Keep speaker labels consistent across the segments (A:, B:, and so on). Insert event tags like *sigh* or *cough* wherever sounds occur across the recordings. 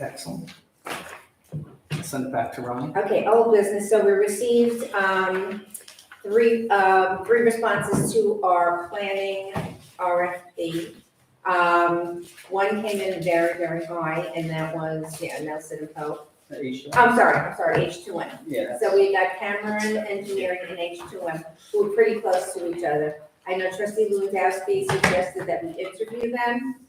A: Excellent. Send it back to Ron.
B: Okay, old business, so we received, um, three, um, three responses to our planning RFP. Um, one came in very, very high, and that was, yeah, Nelson and Pope.
A: Aisha?
B: I'm sorry, I'm sorry, H two M.
A: Yeah.
B: So we got Cameron Engineering and H2M, who are pretty close to each other. I know trustee Lewandowski suggested that we interview them.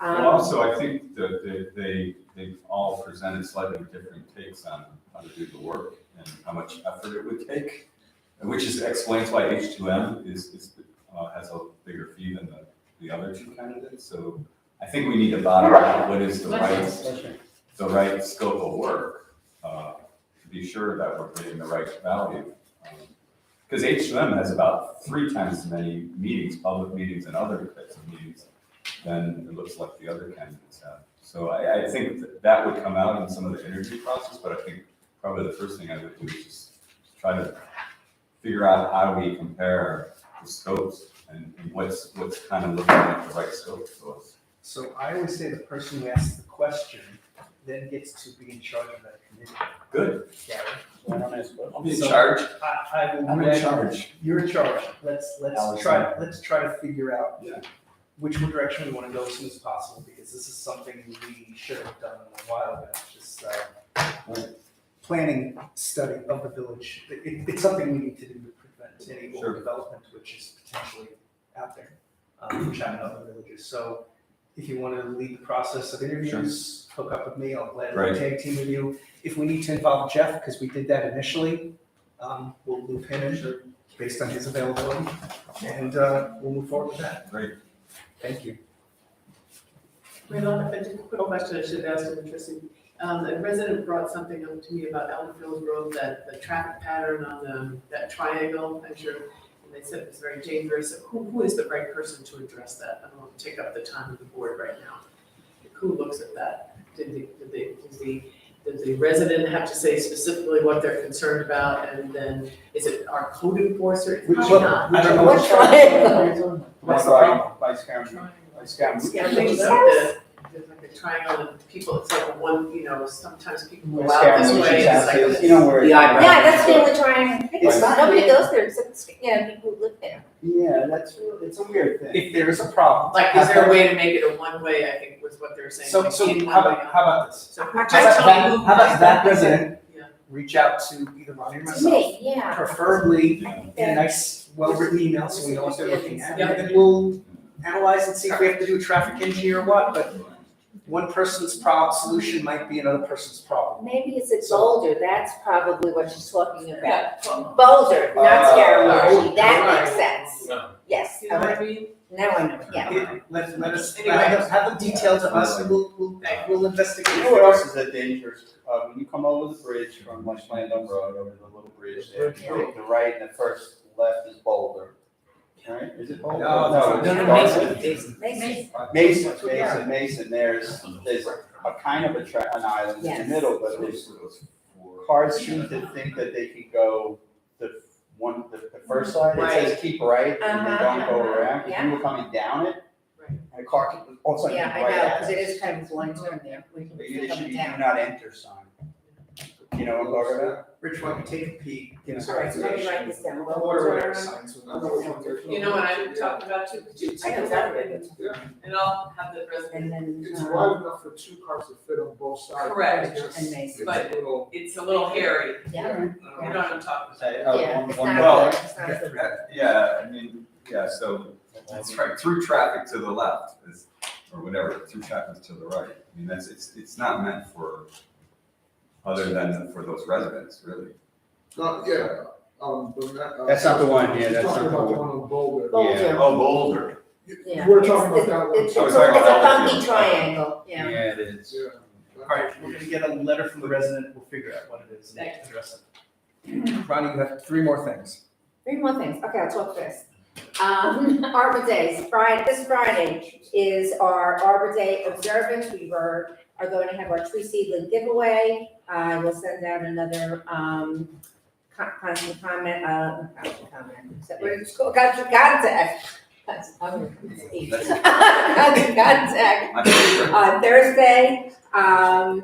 C: Well,
B: Um,
C: also, I think that they, they, they all presented slightly different takes on how to do the work and how much effort it would take, which is, explains why H2M is, is, uh, has a bigger fee than the, the other two candidates. So I think we need to bottom out what is the right, the right scope of work, uh, to be sure that we're getting the right value. Um, Because H2M has about three times as many meetings, public meetings and other types of meetings than it looks like the other candidates have. So I, I think that that would come out in some of the interview process, but I think probably the first thing I would do is just try to figure out how we compare the scopes and and what's, what's kind of looking like the right scope for us.
A: So I always say the person who asks the question then gets to be in charge of that committee.
C: Good,
A: Gary, why don't I ask what-
C: I'll be in
A: So
C: charge.
A: I, I will.
C: I'm in
A: read-
C: charge.
A: You're in charge. Let's, let's
C: Allison.
A: try, let's try to figure out
C: Yeah.
A: which direction we want to go as soon as possible, because this is something we should have done a while ago, just, uh,
C: Right.
A: planning study of the village. It- It, it's something we need to do to prevent any
C: Sure.
A: old development which is potentially out there, um, which I know other villages. So if you want to lead the process of interviews, hook up with me, I'll gladly
C: Right.
A: tag team with you. If we need to involve Jeff, because we did that initially, um, we'll loop him in based on his availability, and, uh, we'll move forward with that.
C: Great.
A: Thank you.
D: Wait, on, a just a quick question I should have asked of Tracy. Um, a resident brought something up to me about Elmfield Road, that the traffic pattern on the, that triangle, I'm sure, and they said it was very dangerous. Who, who is the right person to address that? I don't want to take up the time of the board right now. Who looks at that? Did the, did the, does the, does the resident have to say specifically what they're concerned about, and then is it our code enforcer? It's
A: Which
D: probably
A: one?
D: not.
A: I don't know.
B: Which triangle?
A: What's the problem?
E: Vice Chairman,
D: Triangle.
E: Vice Chairman.
D: Yeah, I think *laughs* it's like the, there's like a triangle and people, it's like one, you know, sometimes people go
E: Vice
D: out
E: Chairman,
D: this
E: we
D: way,
E: should
D: it's
E: have
D: like
E: this,
D: this.
E: you know where.
A: The eyebrow.
B: Yeah, that's family triangle.
A: It's not-
B: Nobody goes there except, yeah, people who live there.
E: Yeah, that's, really- it's a weird thing.
A: If there is a problem.
D: Like, is there a way to make it a one-way, I think was what they were saying.
A: So,
D: like
A: so
D: in
A: how
D: one way.
A: about, how about this?
D: So who-
B: How
A: How
D: just
A: about
D: tell
A: that,
D: me who-
A: how about that resident
D: Yeah.
A: reach out to either Ronnie or myself,
B: Me, yeah.
A: preferably
C: Yeah.
A: in a nice, well-written email, so we know what they're looking at.
D: Yeah.
A: And then we'll analyze and see if we have to do a traffic engineer or what, but one person's prob, solution might be another person's problem.
B: Maybe it's at Boulder, that's probably what she's talking about.
D: Yeah, well,
B: Boulder, not
E: Uh,
B: Scaramouche, that makes
A: right.
B: sense. Yes,
D: You know
B: now
D: what I mean?
B: I know, yeah.
A: It- Let, let us,
D: Anyway.
A: have them- have them detailed to us, and we'll, we'll, we'll investigate.
E: You know what else is that dangerous? Uh, when you come over the bridge from West Landam Road over the little bridge there, you take the right and the first left is Boulder. Right, is it Boulder?
A: No,
E: it's
A: no,
F: no,
E: Boulder.
B: Mason.
E: Mason, Mason, Mason, there's, there's a kind of a tra, an island in the
B: Yes.
E: middle, but there's cars seem to think that they can go the one, the, the first side, it says keep right, and they don't go
B: Uh-huh,
E: around, if
B: yeah.
E: you were coming down it,
D: Right.
E: and a car can, all of a sudden,
B: Yeah,
E: keep
B: I
E: right
B: know,
E: at
B: because it is kind of a blind turn there. We can
E: Maybe
B: pick
E: there
B: up
E: should
B: and
E: be do
B: down.
E: not enter sign. You know what I'm talking about?
A: Rich, why don't you take a peek, give us
B: All
A: our
B: right, so let me
A: information.
B: write this down.
A: Order whatever signs we want.
D: You know what I'm talking about too, could
B: I
D: you take
B: know
D: a
B: that.
D: and I'll have the
B: And
D: resident,
B: then,
G: It's
B: uh,
G: wide enough for two cars to fit on both sides.
D: Correct.
G: It's
B: and
G: just-
B: Mason,
G: it's a little-
D: it's a little hairy,
B: yeah,
D: you know what I'm talking about.
E: Say, oh,
B: yeah,
E: one-
B: it's
E: one-
C: well,
B: not, it's not.
C: Yeah, I mean, yeah, so that's right, through traffic to the left is, or whatever, through traffic to the right. I mean, that's, it's, it's not meant for, other than for those residents, really.
G: Not, yeah, um, but not. uh,
E: That's not the one, yeah, that's
G: Talking
E: not the
G: about the
E: one.
G: one on Boulder.
B: Boulder,
C: Oh, Boulder.
G: You-
B: yeah.
G: We're
B: It's-
G: talking
B: it's-
G: about that one.
B: It's, it's
C: Oh,
B: a
C: we're talking
B: it's a
C: about that
B: funky
C: one.
B: triangle, yeah.
E: Yeah, it is.
G: Yeah.
A: Alright, we're gonna get a letter from the resident, we'll figure out what it is and
D: Thanks.
A: address it. Ronnie, you have three more things.
B: Three more things, okay, I'll talk first. Um, *laughs* Arbor Days, Friday, this Friday is our Arbor Day observance, we were, are going to have our tree seedling giveaway. I will send out another, um, co- constant comment, uh, constant comment, is that what it's called? Constant contact. Constant
C: *laughs*
B: contact. Constant contact
C: My favorite.
B: on Thursday. Um,